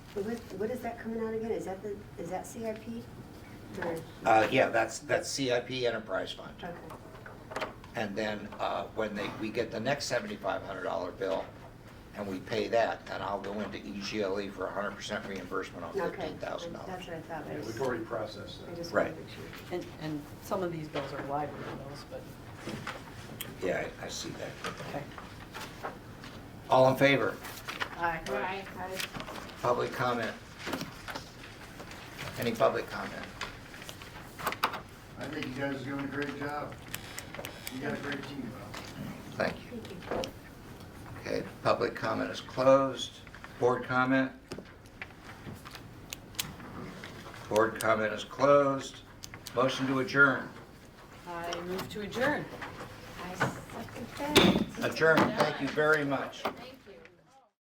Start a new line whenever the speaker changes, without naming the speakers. But What, what is that coming out again? Is that the, is that CIP? Or,
Uh, yeah, that's, that's CIP Enterprise Fund.
okay,
And then, uh, when they, we get the next seventy-five hundred dollar bill and we pay that, then I'll go into E EGLE for hundred percent reimbursement on
okay.
fifteen thousand dollars.
That's what I thought, but I
Yeah,
just,
We've already processed
I
that.
just wanted
Right.
to make sure.
And, and some of these bills are library bills, but,
Yeah, I, I see that.
okay.
All in favor?
Aye.
Right.
Public comment? Any public comment?
I think you guys are doing a great job. You got a great team, Bob.
Thank you. Okay, public comment is closed. Board comment? Board comment is closed. Motion to adjourn.
I move to adjourn.
I second that.
Adjourn, thank you very much.
Thank